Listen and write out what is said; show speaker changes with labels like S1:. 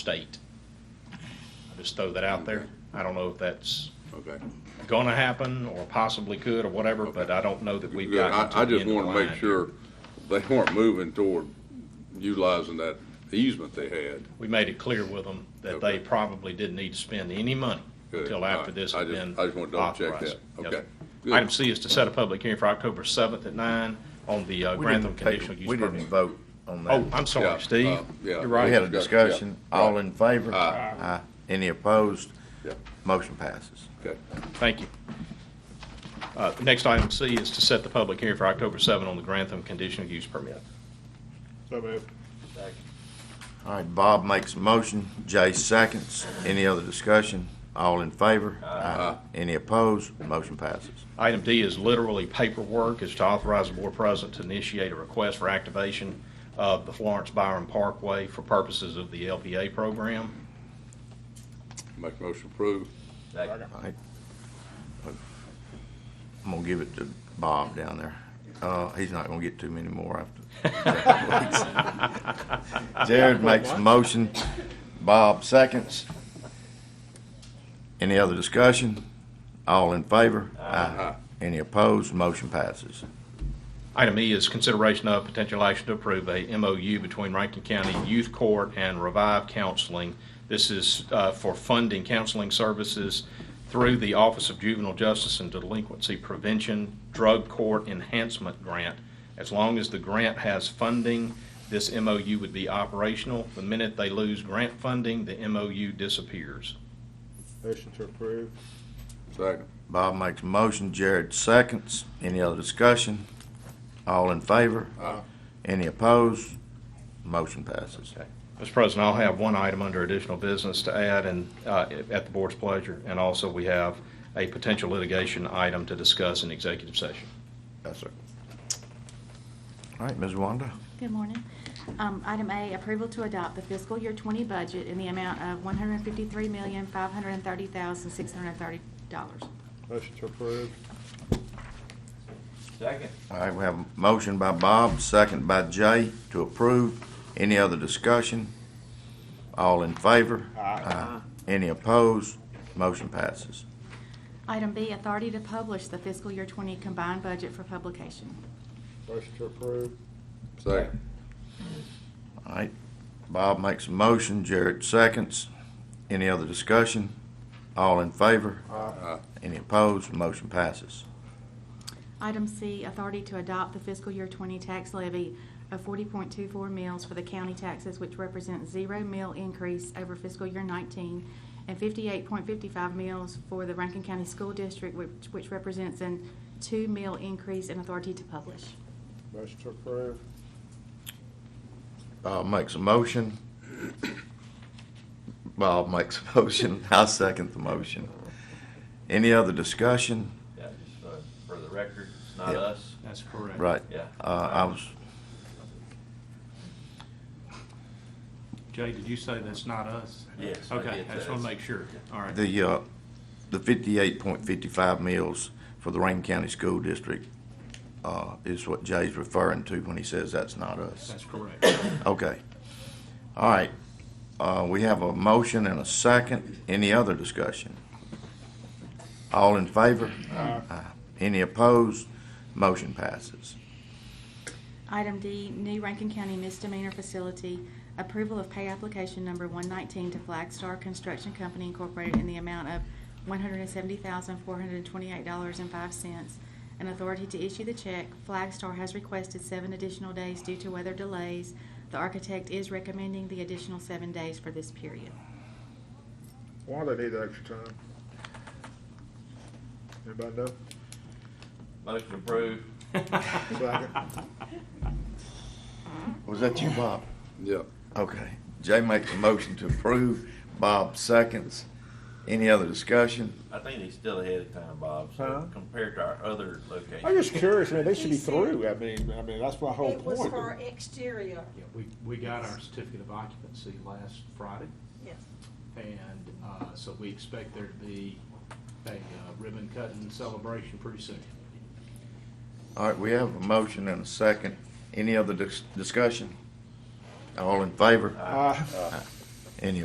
S1: state. I just throw that out there. I don't know if that's
S2: Okay.
S1: gonna happen or possibly could or whatever, but I don't know that we've
S2: Yeah,
S1: gotten
S2: I, I
S1: to the
S2: just
S1: end of the
S2: wanna make
S1: line.
S2: sure they weren't moving toward utilizing that easement they had.
S1: We made it clear with them that
S2: Okay.
S1: they probably didn't need to spend any money
S2: Good.
S1: until
S2: All
S1: after
S2: right.
S1: this
S2: I
S1: had
S2: just-
S1: been authorized.
S2: I just wanna double check that.
S1: Yes,
S2: Okay.
S1: sir.
S2: Good.
S1: Item C is to set a public hearing for October seventh at nine on the uh,
S3: We
S1: Grantham
S3: didn't take-
S1: conditional use
S3: We
S1: permit.
S3: didn't vote on that.
S1: Oh, I'm
S2: Yeah,
S1: sorry, Steve.
S2: uh, yeah.
S1: You're
S3: We had
S1: right.
S3: a discussion,
S2: Yeah.
S3: all in favor?
S2: Aye.
S3: Aye. Any opposed?
S2: Yeah,
S3: Motion passes.
S2: okay.
S1: Thank you. Uh, the Next item C is to set the public hearing for October seventh on the Grantham conditional use permit.
S4: So moved.
S3: All right, Bob makes a motion, Jay seconds. Any other discussion? All in favor? Aye. Any opposed? Motion passes.
S1: Item D is literally paperwork, is to authorize the board president to initiate a request for activation of the Florence Byron Parkway for purposes of the LPA program.
S2: Make motion approved.
S3: All right. I'm gonna give it to Bob down there. Uh, he's not gonna get too many more after. Jared makes a motion, Bob seconds. Any other discussion? All in favor? Aye. Any opposed? Motion passes.
S1: Item E is consideration of potential action to approve a MOU between Rankin County Youth Court and Revive Counseling. This is uh, for funding counseling services through the Office of Juvenile Justice and Delinquency Prevention Drug Court Enhancement Grant. As long as the grant has funding, this MOU would be operational. The minute they lose grant funding, the MOU disappears.
S4: Motion to approve.
S2: Second.
S3: Bob makes a motion, Jared seconds. Any other discussion? All in favor?
S2: Aye.
S3: Any opposed? Motion passes.
S1: Mr. President, I'll have one item under additional business to add and, uh, at the board's pleasure. And also, we have a potential litigation item to discuss in executive session.
S3: Yes, sir. All right, Ms. Wanda.
S5: Good morning. Um, Item A, approval to adopt the fiscal year 20 budget in the amount of $153,530,630.
S4: Motion to approve.
S3: All right, we have a motion by Bob, second by Jay to approve. Any other discussion? All in favor? Aye. Any opposed? Motion passes.
S5: Item B, authority to publish the fiscal year 20 combined budget for publication.
S4: Motion to approve.
S2: Second.
S3: All right, Bob makes a motion, Jared seconds. Any other discussion? All in favor?
S2: Aye.
S3: Any opposed? Motion passes.
S5: Item C, authority to adopt the fiscal year 20 tax levy of 40.24 mils for the county taxes, which represents zero mil increase over fiscal year 19, and 58.55 mils for the Rankin County School District, which which represents an two mil increase in authority to publish.
S4: Motion to approve.
S3: Bob makes a motion. Bob makes a motion. I second the motion. Any other discussion?
S6: Yeah, just for, for the record, it's not
S3: Yeah.
S6: us.
S1: That's correct.
S3: Right.
S6: Yeah.
S3: Uh, I was,
S7: Jay, did you say that's not us?
S6: Yes, I
S7: Okay,
S6: did
S7: I
S6: say
S7: just want
S6: that's-
S7: to make sure. All right.
S3: the, uh, the fifty-eight point fifty-five mills for the Rankin County School District, uh, is what Jay's referring to when he says that's not us.
S7: That's correct.
S3: Okay. All right. Uh, we have a motion and a second. Any other discussion? All in favor? Aye. Any opposed? Motion passes.
S5: Item D, new Rankin County misdemeanor facility, approval of pay application number 119 to Flagstar Construction Company Incorporated in the amount of $170,428.05, and authority to issue the check. Flagstar has requested seven additional days due to weather delays. The architect is recommending the additional seven days for this period.
S4: Why do they need the extra time? Anybody know?
S6: Motion approved.
S4: Second.
S3: Was that you, Bob?
S2: Yeah.
S3: Okay. Jay makes a motion to approve. Bob seconds. Any other discussion?
S6: I think he's still ahead of time, Bob,
S4: Huh?
S6: so compared to our other locations.
S4: I'm just curious, man, they should be
S8: He said-
S4: through, I mean, I mean, that's my whole
S8: It was for
S4: point.
S8: exterior,
S7: Yeah, We, we got our certificate of occupancy last Friday,
S8: yes.
S7: and uh, so we expect there to be a uh, ribbon cutting celebration pretty soon.
S3: All right, we have a motion and a second. Any other dis- discussion? All in favor?
S4: Uh,
S3: Any